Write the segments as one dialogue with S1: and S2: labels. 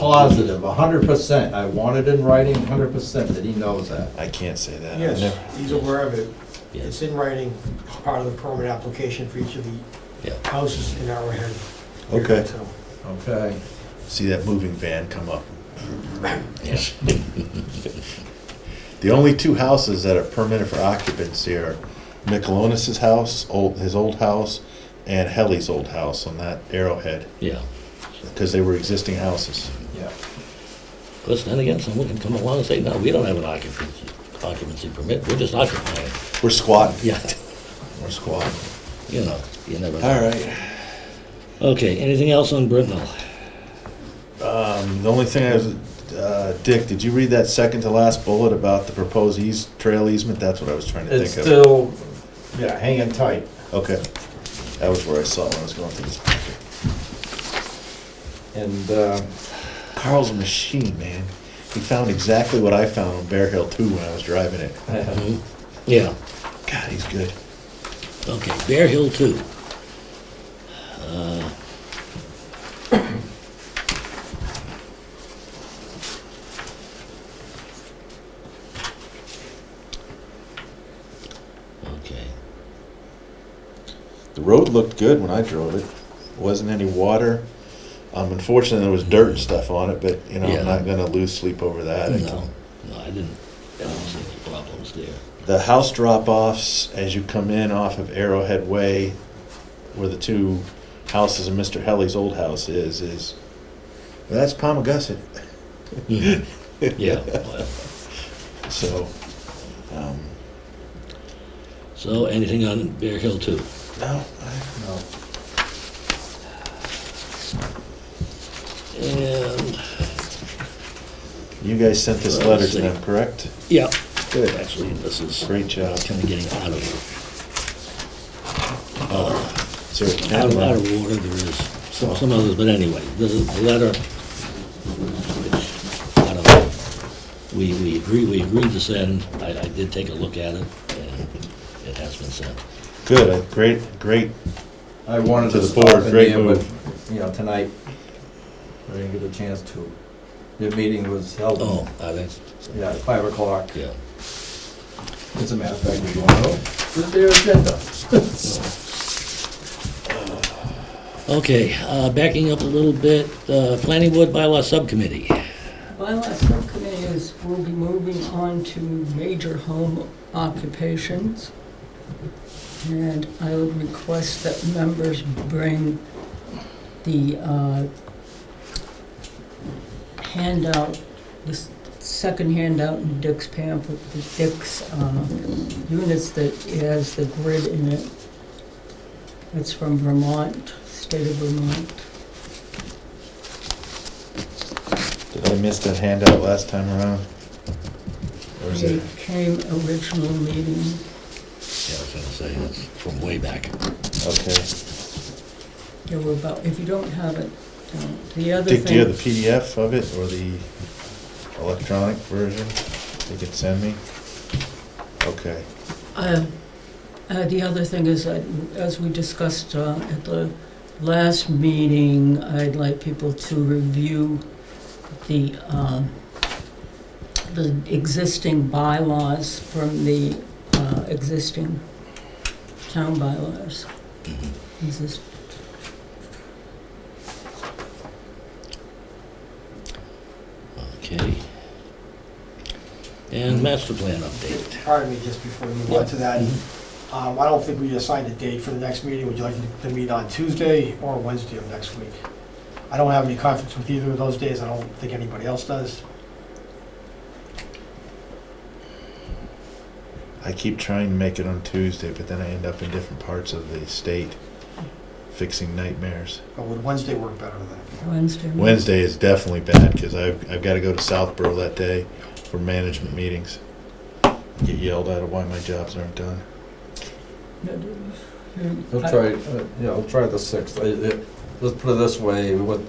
S1: positive, hundred percent, I want it in writing, hundred percent, that he knows that.
S2: I can't say that. I Uh, never-
S3: Yes, he's aware of it. It's
S4: Yes,
S3: in writing, It's part of the permit application for each of the
S4: yeah.
S3: houses in Arrowhead.
S2: Okay.
S3: So,
S1: Okay,
S2: See that moving van come up. The only two houses that are permitted for occupancy are Michelonas's house, old, his old house, and Helly's old house on that Arrowhead,
S4: Yeah.
S2: because they were existing houses.
S1: yeah.
S4: Because then again, someone can come along and say, no, we don't have an occupancy, occupancy permit, we're just occupying.
S2: We're squatting,
S4: Yeah,
S2: we're squatting.
S4: you know, you never know.
S2: All right.
S4: Okay, anything else on Brittenell?
S2: Um, The only thing I was, uh, Dick, did you read that second to last bullet about the proposed eas trail easement? That's what I was trying to
S1: It's
S2: think of.
S1: still, yeah, hanging tight.
S2: Okay, that was where I saw it when I was going through this.
S1: And, uh,
S2: Carl's a machine, man. He found exactly what I found on Bear Hill 2 when I was driving it.
S4: Mhm. Yeah,
S2: God, he's good.
S4: okay, Bear Hill two. Uh. Uh, Okay,
S2: The road looked good when I drove it. Wasn't any water. Um, unfortunately, there was dirt and stuff on it, but you know,
S4: Yeah.
S2: I'm not gonna lose sleep over that. I
S4: no,
S2: can-
S4: no, I didn't, I don't see any problems there.
S2: The house drop-offs as you come in off of Arrowhead Way, where the two houses and Mr. Helly's old house is, is well, that's Palmagussit.
S4: Mhm. Yeah, well,
S2: So, um,
S4: so anything on Bear Hill two?
S2: no, I-
S1: no,
S4: And,
S2: you guys sent this
S4: Well,
S2: letter
S4: let's
S2: to
S4: see.
S2: them, correct?
S4: yeah,
S2: Good.
S4: actually, this is
S2: Great job.
S4: kind of getting out of,
S2: Is there a cat
S4: out of, out
S2: around?
S4: of order, there is some, some others, but anyway, this is the letter. which, I don't know, We, we agree, we agreed to send, I, I did take a look at it, and it has been sent.
S2: Good, uh, great, great.
S1: I wanted
S2: To
S1: to
S2: the
S1: stop
S2: board,
S1: in
S2: great
S1: there, but, you know, tonight, I didn't get a chance to. Your meeting was held,
S4: Oh, I think,
S1: yeah, at five o'clock.
S4: yeah.
S1: As a matter of fact, we're going, oh, this is their agenda.
S4: Okay, uh, backing up a little bit, uh, Planning Board Bylaw Subcommittee.
S5: Bylaw Subcommittee is, will be moving on to major home occupations. And I would request that members bring the uh, handout, this second handout in Dick's pamphlet, the Dick's uh, units that has the grid in it. It's from Vermont, state of Vermont.
S2: Did I miss that handout last time around? Or is
S5: It
S2: it?
S5: came original meeting.
S4: Yeah, I was gonna say, that's from way back.
S2: Okay.
S5: There were about, if you don't have it, don't. the other
S2: Dick, do you have
S5: thing,
S2: the PDF of it or the electronic version you could send me? Okay.
S5: uh, uh, the other thing is, that, as we discussed uh, at the last meeting, I'd like people to review the, um, the existing bylaws from the uh, existing town bylaws. Exist-
S4: Okay. And master plan update.
S3: Pardon me, just before we move on to that, um, I don't think we assigned a date for the next meeting. Would you like to meet on Tuesday or Wednesday of next week? I don't have any conflicts with either of those days. I don't think anybody else does.
S2: I keep trying to make it on Tuesday, but then I end up in different parts of the state fixing nightmares.
S3: But would Wednesday work better than that?
S5: Wednesday.
S2: Wednesday is definitely bad because I've, I've got to go to Southborough that day for management meetings. Get yelled at of why my jobs aren't done.
S1: He'll
S5: I-
S1: try, uh, yeah, he'll try the sixth. I- I- Let's put it this way, what,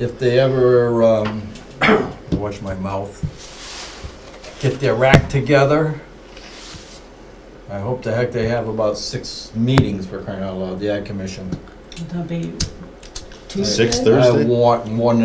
S1: if they ever, um, watch my mouth, get their act together, I hope the heck they have about six meetings for crying out loud, the ad commission.
S5: That'd be Tuesday.
S1: Uh,
S2: Six thirty? Thursday?
S1: I want one